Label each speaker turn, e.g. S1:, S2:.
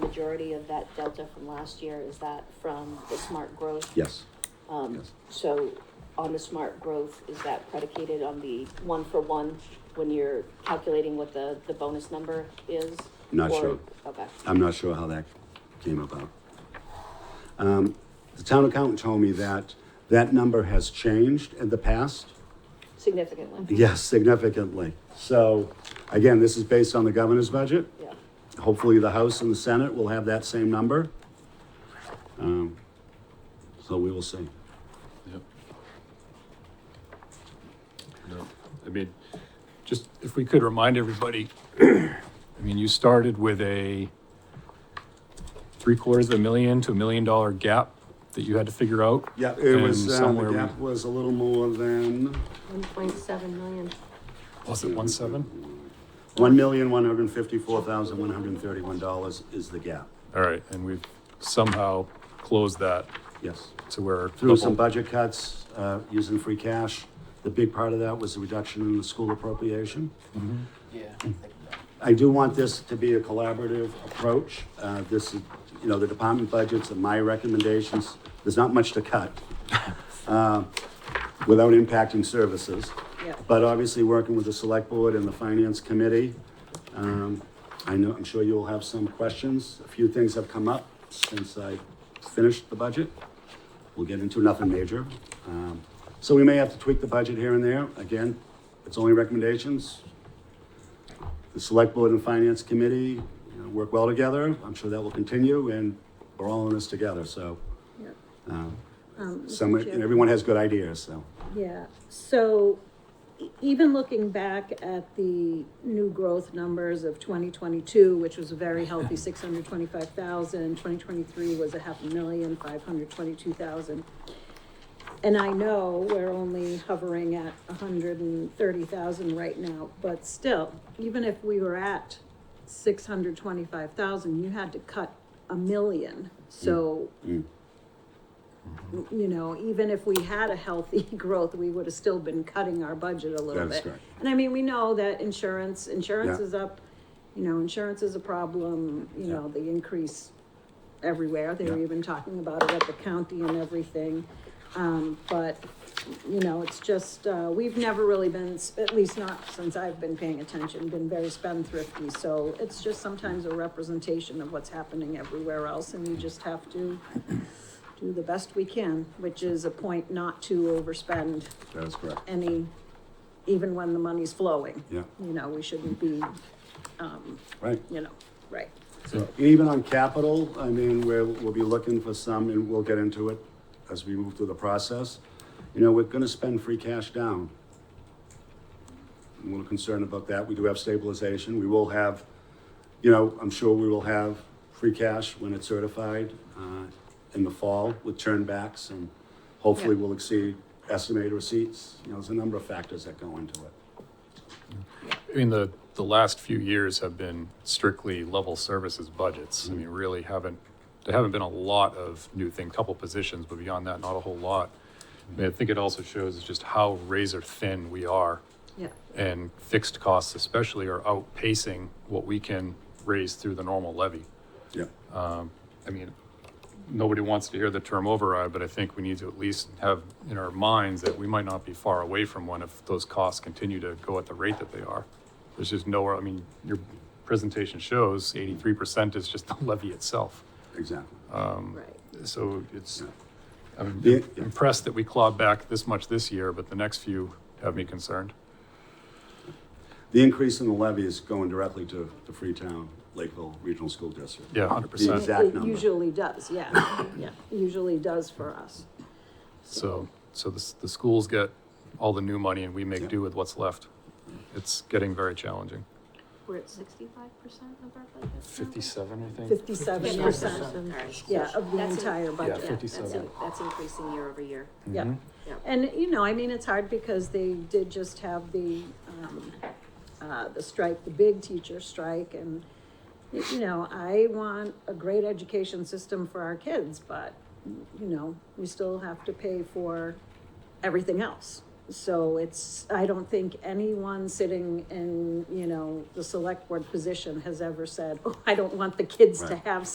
S1: majority of that delta from last year, is that from the smart growth?
S2: Yes.
S1: Um,
S2: Yes.
S1: so on the smart growth, is that predicated on the one for one when you're calculating what the, the bonus number is?
S2: Not
S1: Or-
S2: sure. Uh,
S1: Okay,
S2: I'm not sure how that came about. Um, The town accountant told me that that number has changed in the past.
S1: significantly,
S2: Yes, significantly. So again, this is based on the governor's budget.
S1: yeah.
S2: Hopefully, the House and the Senate will have that same number. Um, So we will see.
S3: Yep. No, I mean, just if we could remind everybody, I mean, you started with a three quarters of a million to a million dollar gap that you had to figure out.
S2: Yeah, it was,
S3: And
S2: uh,
S3: somewhere
S2: the
S3: we-
S2: gap was a little more than
S4: One point seven million.
S3: Was it one seven?
S2: one million, one hundred and fifty-four thousand, one hundred and thirty-one dollars is the gap.
S3: All right, and we've somehow closed that
S2: Yes.
S3: to where.
S2: Through some
S3: double-
S2: budget cuts, uh, using free cash. The big part of that was the reduction in the school appropriation.
S5: Yeah.
S2: I do want this to be a collaborative approach. Uh, This is, you know, the department budgets and my recommendations, there's not much to cut uh, without impacting services.
S1: Yeah.
S2: But obviously, working with the select board and the finance committee, um, I know, I'm sure you'll have some questions. A few things have come up since I finished the budget. We'll get into nothing major. Um, So we may have to tweak the budget here and there. Again, it's only recommendations the select board and finance committee you know, work well together. I'm sure that will continue and we're all in this together, so.
S6: Yep.
S2: um,
S6: Um, Mr.
S2: Some,
S6: Chair.
S2: and everyone has good ideas, so.
S6: Yeah, so e- even looking back at the new growth numbers of twenty twenty-two, which was a very healthy six hundred twenty-five thousand, twenty twenty-three was a half a million, five hundred twenty-two thousand. And I know we're only hovering at hundred and thirty thousand right now, but still, even if we were at six hundred twenty-five thousand, you had to cut a million, so
S2: Mm,
S6: you know, even if we had a healthy growth, we would have still been cutting our budget a little
S2: That is
S6: bit.
S2: correct.
S6: And I mean, we know that insurance, insurance
S2: Yeah.
S6: is up, you know, insurance is a problem, you know, the increase everywhere. They were
S2: Yeah.
S6: even talking about it at the county and everything. Um, but, you know, it's just, uh, we've never really been, s- at least not since I've been paying attention, been very spendthrifty. So it's just sometimes a representation of what's happening everywhere else and we just have to do the best we can, which is a point not to overspend
S2: That is correct.
S6: any, even when the money's flowing.
S2: Yeah,
S6: You know, we shouldn't be,
S2: right.
S6: you know, right.
S2: So even on capital, I mean, we're, we'll be looking for some and we'll get into it as we move through the process. You know, we're gonna spend free cash down. I'm a little concerned about that. We do have stabilization. We will have, you know, I'm sure we will have free cash when it's certified, uh, in the fall with turnbacks and hopefully
S6: Yeah.
S2: we'll exceed estimated receipts. You know, there's a number of factors that go into it.
S3: I mean, the, the last few years have been strictly level services budgets. I mean, really haven't, there haven't been a lot of new thing, couple positions, but beyond that, not a whole lot. I mean, I think it also shows just how razor thin we are
S6: Yeah.
S3: and fixed costs especially are outpacing what we can raise through the normal levy.
S2: Yeah.
S3: I mean, nobody wants to hear the term override, but I think we need to at least have in our minds that we might not be far away from one if those costs continue to go at the rate that they are. There's just nowhere, I mean, your presentation shows eighty-three percent is just the levy itself.
S2: Exactly.
S6: Right.
S3: So it's, I'm
S2: Yeah, yeah.
S3: impressed that we clawed back this much this year, but the next few have me concerned.
S2: The increase in the levy is going directly to the Freetown Lakeville Regional School District.
S3: Yeah, hundred
S2: The
S3: percent.
S2: exact
S6: It
S2: number.
S6: usually does, yeah, yeah, usually does for us.
S3: So, so the, s- the schools get all the new money and we make do with what's left. It's getting very challenging.
S6: We're at
S4: Sixty-five percent of our budget.
S3: Fifty-seven, I think.
S6: fifty-seven
S1: Yeah,
S6: percent,
S1: all right.
S6: yeah, of the
S1: That's it.
S6: entire budget.
S3: Yeah,
S1: That's, in-
S3: 57.
S1: that's increasing year over year.
S6: Yeah.
S1: Yeah.
S6: And, you know, I mean, it's hard because they did just have the, um, uh, the strike, the big teacher strike and, y- you know, I want a great education system for our kids, but, you know, we still have to pay for everything else. So it's, I don't think anyone sitting in, you know, the select board position has ever said, oh, I don't want the kids to
S2: Right.
S6: have